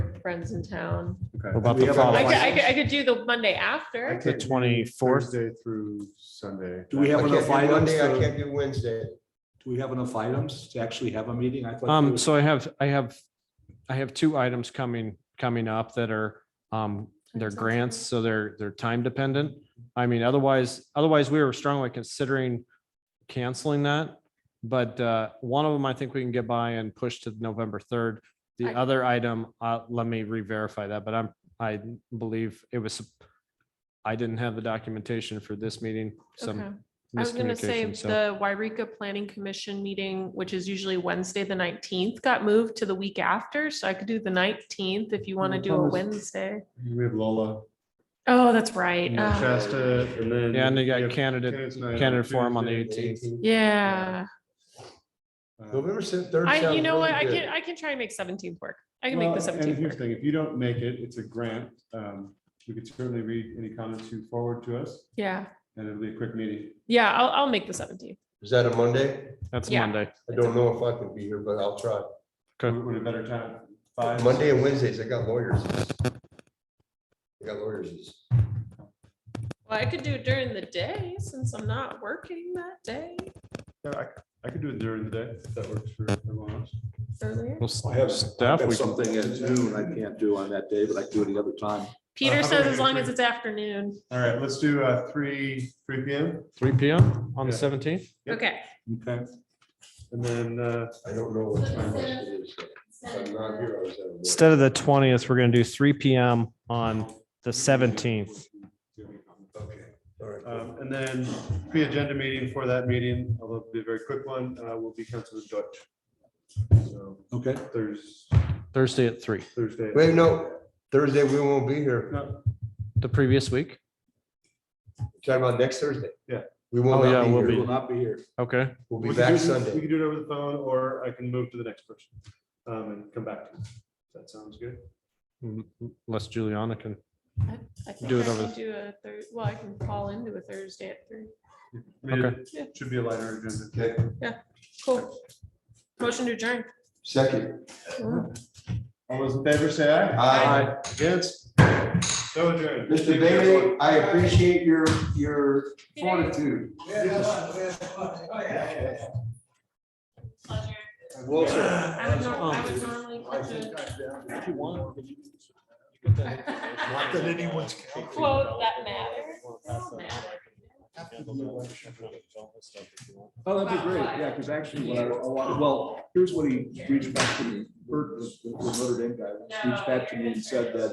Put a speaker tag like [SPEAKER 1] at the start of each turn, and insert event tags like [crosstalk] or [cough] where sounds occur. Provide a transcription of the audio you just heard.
[SPEAKER 1] friends in town.
[SPEAKER 2] Okay.
[SPEAKER 3] What about
[SPEAKER 2] We
[SPEAKER 3] the
[SPEAKER 2] have
[SPEAKER 4] Oh,
[SPEAKER 2] a-
[SPEAKER 1] I
[SPEAKER 3] following?
[SPEAKER 1] could, I could, I could do the Monday after.
[SPEAKER 3] The twenty-fourth,
[SPEAKER 2] Thursday through Sunday.
[SPEAKER 4] Do we
[SPEAKER 2] That-
[SPEAKER 4] have
[SPEAKER 5] I can't
[SPEAKER 4] enough
[SPEAKER 5] do
[SPEAKER 4] items?
[SPEAKER 5] Monday, I can't
[SPEAKER 4] to-
[SPEAKER 5] do Wednesday.
[SPEAKER 4] Do we have enough items to actually have a meeting? I thought there
[SPEAKER 3] um,
[SPEAKER 4] was-
[SPEAKER 3] so I have, I have, I have two items coming, coming up that are, um, they're
[SPEAKER 1] Sounds good.
[SPEAKER 3] grants, so they're, they're time dependent. I mean, otherwise, otherwise we were strongly considering canceling that. But, uh, one of them, I think we can get by and push to November third. The
[SPEAKER 1] I-
[SPEAKER 3] other item, uh, let me re-verify that, but I'm, I believe it was, I didn't have the documentation for this meeting,
[SPEAKER 1] Okay.
[SPEAKER 3] some
[SPEAKER 1] I was gonna say
[SPEAKER 3] miscommunication, so.
[SPEAKER 1] the Wairika Planning Commission meeting, which is usually Wednesday, the nineteenth, got moved to the week after, so I could do the nineteenth if you want to
[SPEAKER 2] What
[SPEAKER 1] do a
[SPEAKER 2] time is-
[SPEAKER 1] Wednesday.
[SPEAKER 2] We have Lola,
[SPEAKER 1] Oh, that's right.
[SPEAKER 2] and
[SPEAKER 1] Uh,
[SPEAKER 2] Shasta, and then.
[SPEAKER 3] Yeah, and they
[SPEAKER 2] we
[SPEAKER 3] got
[SPEAKER 2] have
[SPEAKER 3] candidate,
[SPEAKER 2] candidates night
[SPEAKER 3] candidate forum on the
[SPEAKER 2] Tuesday.
[SPEAKER 3] eighteenth.
[SPEAKER 1] Yeah,
[SPEAKER 2] Uh,
[SPEAKER 5] November se- third.
[SPEAKER 1] I, you
[SPEAKER 5] sounds
[SPEAKER 1] know what, I
[SPEAKER 5] really
[SPEAKER 1] can,
[SPEAKER 5] good.
[SPEAKER 1] I can try and make seventeenth work. I can make
[SPEAKER 2] well,
[SPEAKER 1] the
[SPEAKER 2] And
[SPEAKER 1] seventeenth
[SPEAKER 2] here's the
[SPEAKER 1] work.
[SPEAKER 2] thing, if you don't make it, it's a grant. Um, We could certainly read any comments you forward to us,
[SPEAKER 1] Yeah,
[SPEAKER 2] and it'll be a quick meeting.
[SPEAKER 1] yeah, I'll, I'll make the seventeenth.
[SPEAKER 5] Is that a Monday?
[SPEAKER 3] That's
[SPEAKER 1] Yeah.
[SPEAKER 3] Monday.
[SPEAKER 5] I don't know if I can be here, but I'll try.
[SPEAKER 3] Okay.
[SPEAKER 2] What a better time? Five?
[SPEAKER 5] Monday and Wednesdays, I got lawyers. I got lawyers.
[SPEAKER 1] Well, I could do it during the day since I'm not working that day
[SPEAKER 2] Yeah, I- I could do it during the day, if that works for everyone else.
[SPEAKER 1] earlier.
[SPEAKER 3] Well,
[SPEAKER 4] I have-
[SPEAKER 3] Steph,
[SPEAKER 4] I have
[SPEAKER 3] we can-
[SPEAKER 4] Something at noon I can't do on that day, but I can do it another time.
[SPEAKER 1] Peter
[SPEAKER 2] how
[SPEAKER 1] says
[SPEAKER 2] about
[SPEAKER 1] as long
[SPEAKER 2] we-
[SPEAKER 1] as it's afternoon.
[SPEAKER 2] All right, let's do uh, three, three P M,
[SPEAKER 3] Three P M on the
[SPEAKER 2] Yeah.
[SPEAKER 3] seventeenth?
[SPEAKER 2] Yep.
[SPEAKER 1] Okay.
[SPEAKER 4] Okay.
[SPEAKER 2] and then uh,
[SPEAKER 5] I don't know what time it is. If I'm not here, I was at a lawyer.
[SPEAKER 3] Instead of the twentieth, we're gonna do three P M on the seventeenth.
[SPEAKER 5] Okay, all right, cool.
[SPEAKER 2] Um, And then pre-agenda meeting for that meeting, although it'll be a very quick one, uh, will be Councilman Deutsch. So
[SPEAKER 4] Okay.
[SPEAKER 2] Thurs-
[SPEAKER 3] Thursday at three,
[SPEAKER 2] Thursday.
[SPEAKER 5] Wait, no, Thursday, we won't be here.
[SPEAKER 2] No,
[SPEAKER 3] the previous week.
[SPEAKER 5] Talking about next Thursday?
[SPEAKER 2] Yeah.
[SPEAKER 5] We will
[SPEAKER 3] Oh, yeah,
[SPEAKER 5] not
[SPEAKER 3] we'll
[SPEAKER 5] be
[SPEAKER 3] be-
[SPEAKER 5] here.
[SPEAKER 4] Will not be here.
[SPEAKER 3] Okay,
[SPEAKER 5] We'll
[SPEAKER 2] we
[SPEAKER 5] be
[SPEAKER 2] can
[SPEAKER 5] back
[SPEAKER 2] do- We
[SPEAKER 5] Sunday.
[SPEAKER 2] can do it over the phone, or I can move to the next person um, and come back to you. That sounds good.
[SPEAKER 3] Mm, unless Juliana can.
[SPEAKER 1] I I think
[SPEAKER 3] Do
[SPEAKER 1] I
[SPEAKER 3] it over
[SPEAKER 1] can
[SPEAKER 3] the-
[SPEAKER 1] do a Thursday, well, I can call into a Thursday at three.
[SPEAKER 2] I mean,
[SPEAKER 3] Okay.
[SPEAKER 2] it Should be a lighter agenda.
[SPEAKER 5] Okay,
[SPEAKER 1] Cool. Motion to adjourn.
[SPEAKER 5] second.
[SPEAKER 2] All those in favor, say aye.
[SPEAKER 5] Aye.
[SPEAKER 2] Against? So adjourned.
[SPEAKER 5] Mr. Bailey, I appreciate your, your fortitude.
[SPEAKER 4] Well, sir.
[SPEAKER 1] I would nor- I would normally put the-
[SPEAKER 4] [laughs] If you want. you can-
[SPEAKER 6] Not that anyone's counting.
[SPEAKER 1] Quote that matters. It don't matter.
[SPEAKER 4] Oh, that'd be great. Yeah, because actually, what I, I want- well, here's what he reached back to me. Bert, the the Notre Dame guy, reached back to me and said that